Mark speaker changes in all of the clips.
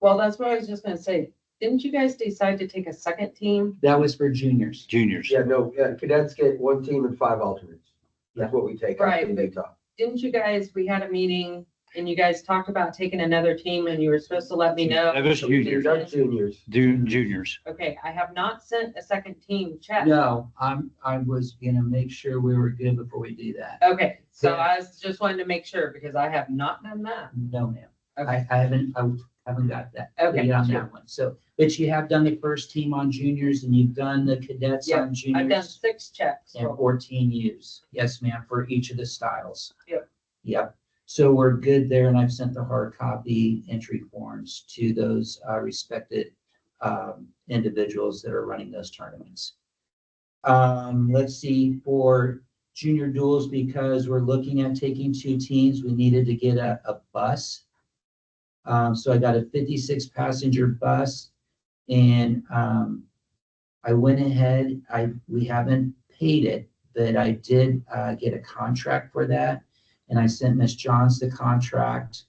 Speaker 1: Well, that's what I was just gonna say. Didn't you guys decide to take a second team?
Speaker 2: That was for juniors.
Speaker 3: juniors.
Speaker 4: Yeah, no, yeah, cadets get one team and five alternates. That's what we take out
Speaker 1: Right,
Speaker 4: in
Speaker 1: but-
Speaker 4: Utah.
Speaker 1: Didn't you guys, we had a meeting and you guys talked about taking another team and you were supposed to let me know.
Speaker 3: That was juniors,
Speaker 4: That's juniors.
Speaker 3: du- juniors.
Speaker 1: Okay, I have not sent a second team check.
Speaker 2: No, I'm, I was gonna make sure we were good before we do that.
Speaker 1: Okay, so I was just wanted to make sure because I have not done that.
Speaker 2: No, ma'am.
Speaker 1: Okay.
Speaker 2: I, I haven't, I haven't got that.
Speaker 1: Okay,
Speaker 2: yet On
Speaker 1: yeah.
Speaker 2: that one. So, but you have done the first team on juniors and you've done the cadets
Speaker 1: Yeah,
Speaker 2: on
Speaker 1: I've done
Speaker 2: juniors.
Speaker 1: six checks.
Speaker 2: And fourteen U's. Yes, ma'am, for each of the styles.
Speaker 1: Yep.
Speaker 2: Yep. So we're good there and I've sent the hard copy entry forms to those uh, respected um, individuals that are running those tournaments. Um, let's see, for junior duels, because we're looking at taking two teams, we needed to get a, a bus. Um, so I got a fifty-six passenger bus and, um, I went ahead, I, we haven't paid it, but I did, uh, get a contract for that. And I sent Miss Johns the contract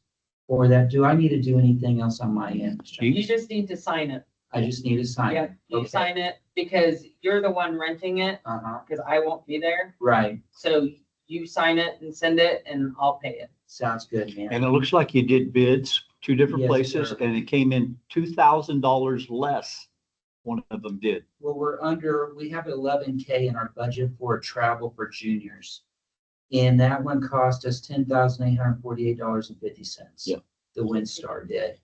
Speaker 2: for that. Do I need to do anything else on my end? Miss Johns?
Speaker 1: You just need to sign it.
Speaker 2: I just need to sign
Speaker 1: Yeah,
Speaker 2: it.
Speaker 1: you
Speaker 2: Okay.
Speaker 1: sign it because you're the one renting it,
Speaker 2: Uh-huh,
Speaker 1: because I won't be there.
Speaker 2: right,
Speaker 1: So you sign it and send it and I'll pay it.
Speaker 2: sounds good, man.
Speaker 3: And it looks like you did bids two different
Speaker 2: Yes,
Speaker 3: places
Speaker 2: sir.
Speaker 3: and it came in two thousand dollars less. One of them did.
Speaker 2: Well, we're under, we have eleven K in our budget for travel for juniors. And that one cost us ten thousand eight hundred forty-eight dollars and fifty cents.
Speaker 3: Yeah.
Speaker 2: The WinStar did.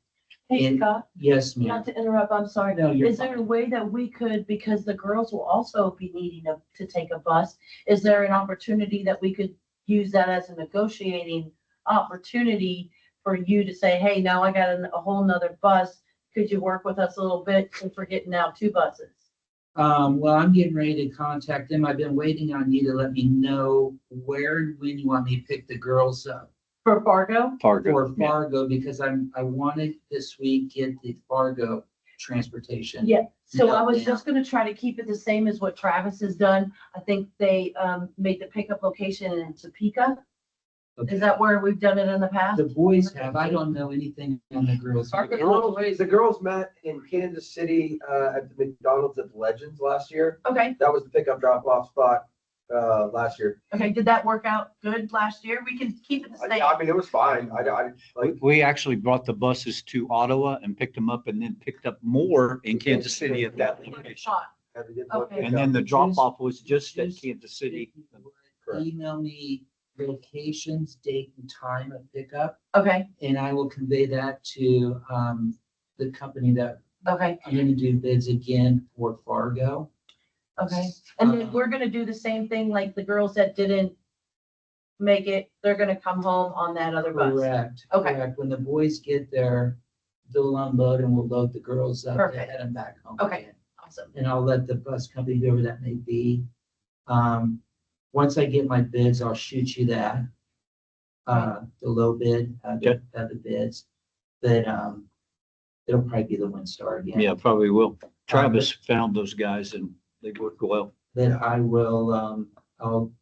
Speaker 5: Hey,
Speaker 2: And-
Speaker 5: Scott,
Speaker 2: Yes, ma'am.
Speaker 5: not to interrupt, I'm sorry.
Speaker 2: No, you're
Speaker 5: Is there a
Speaker 2: fine.
Speaker 5: way that we could, because the girls will also be needing to, to take a bus, is there an opportunity that we could use that as a negotiating opportunity for you to say, hey, now I got an- a whole nother bus, could you work with us a little bit since we're getting now two buses?
Speaker 2: Um, well, I'm getting ready to contact them. I've been waiting on you to let me know where and when you want me to pick the girls up.
Speaker 5: For Fargo?
Speaker 3: Fargo.
Speaker 2: for
Speaker 3: yeah.
Speaker 2: Fargo because I'm, I wanted this week get the Fargo transportation.
Speaker 5: Yeah, so
Speaker 2: Yeah,
Speaker 5: I was
Speaker 2: yeah.
Speaker 5: just gonna try to keep it the same as what Travis has done. I think they, um, made the pickup location in Topeka.
Speaker 2: Okay.
Speaker 5: Is that where we've done it in the past?
Speaker 2: The boys have, I don't know anything on the girls.
Speaker 1: Fargo-
Speaker 4: Girls- The girls met in Kansas City, uh, at the McDonald's at the Legends last year.
Speaker 5: Okay,
Speaker 4: That was the pickup drop off spot, uh, last year.
Speaker 5: okay, did that work out good last year? We can keep it the
Speaker 4: I,
Speaker 5: same.
Speaker 4: I mean, it was fine. I, I,
Speaker 3: We,
Speaker 4: like.
Speaker 3: we actually brought the buses to Ottawa and picked them up and then picked up more in Kansas City at that location.
Speaker 5: Shot.
Speaker 4: had to get one
Speaker 5: Okay.
Speaker 3: And then the drop off was just at Kansas City.
Speaker 4: Correct.
Speaker 2: Email me locations, date and time of pickup,
Speaker 5: Okay,
Speaker 2: and I will convey that to, um, the company that
Speaker 5: okay,
Speaker 2: I'm gonna do bids again for Fargo.
Speaker 5: okay. And then
Speaker 2: Uh-huh.
Speaker 5: we're gonna do the same thing like the girls that didn't make it, they're gonna come home on that other bus.
Speaker 2: Correct.
Speaker 5: Okay.
Speaker 2: correct. When the boys get there, they'll unload and we'll load the girls up and
Speaker 5: Perfect.
Speaker 2: head them back home.
Speaker 5: Okay.
Speaker 2: again.
Speaker 5: Awesome.
Speaker 2: And I'll let the bus company, whoever that may be. Um, once I get my bids, I'll shoot you that. Uh, the low bid, uh, the, uh, the bids, but, um, it'll probably be the one star again. Um,
Speaker 3: Yeah, probably will. Travis found those guys and they worked well.
Speaker 2: Then I will, um, I'll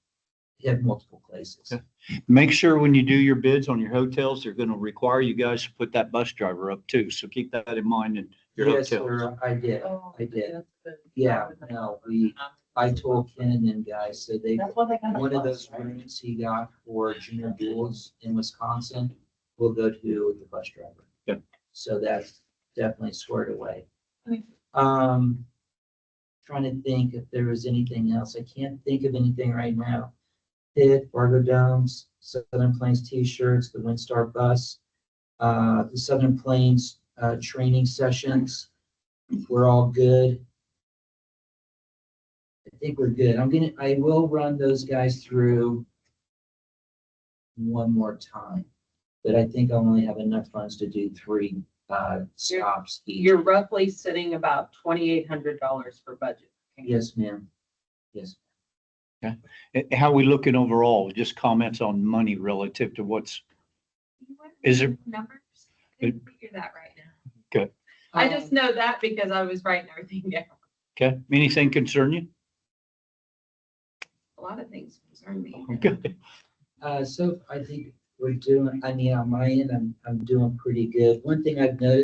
Speaker 2: hit multiple places.
Speaker 3: Okay. Make sure when you do your bids on your hotels, they're gonna require you guys to put that bus driver up too, so keep that in mind in your
Speaker 2: Yes,
Speaker 3: hotel.
Speaker 2: sir, I did.
Speaker 5: Oh,
Speaker 2: I did.
Speaker 5: that's good.
Speaker 2: Yeah, no, we, I told Ken and them guys, so they
Speaker 5: That's why they got. a
Speaker 2: One of
Speaker 5: bus,
Speaker 2: those
Speaker 5: right?
Speaker 2: rooms he got for junior duels in Wisconsin will go to the bus driver.
Speaker 3: Yep.
Speaker 2: So that's definitely squared away.
Speaker 5: Okay.
Speaker 2: Um, trying to think if there was anything else. I can't think of anything right now. Pitt, Fargo Domes, Southern Plains T-shirts, the Windstar Bus, uh, the Southern Plains, uh, training sessions. We're all good. I think we're good. I'm gonna, I will run those guys through one more time, but I think I only have enough funds to do three, uh, stops each.
Speaker 1: You're roughly sitting about twenty-eight hundred dollars for budget.
Speaker 2: Yes, ma'am. Yes.
Speaker 3: Eh, How we looking overall? Just comments on money relative to what's, Is there-
Speaker 6: Numbers? Couldn't figure that right now.
Speaker 1: I just know that because I was writing everything down.
Speaker 3: okay, anything concern you?
Speaker 6: A lot of things concern me.
Speaker 3: Okay.
Speaker 2: Uh, so I think we're doing, I mean, on my end, I'm, I'm doing pretty good. One thing I've noticed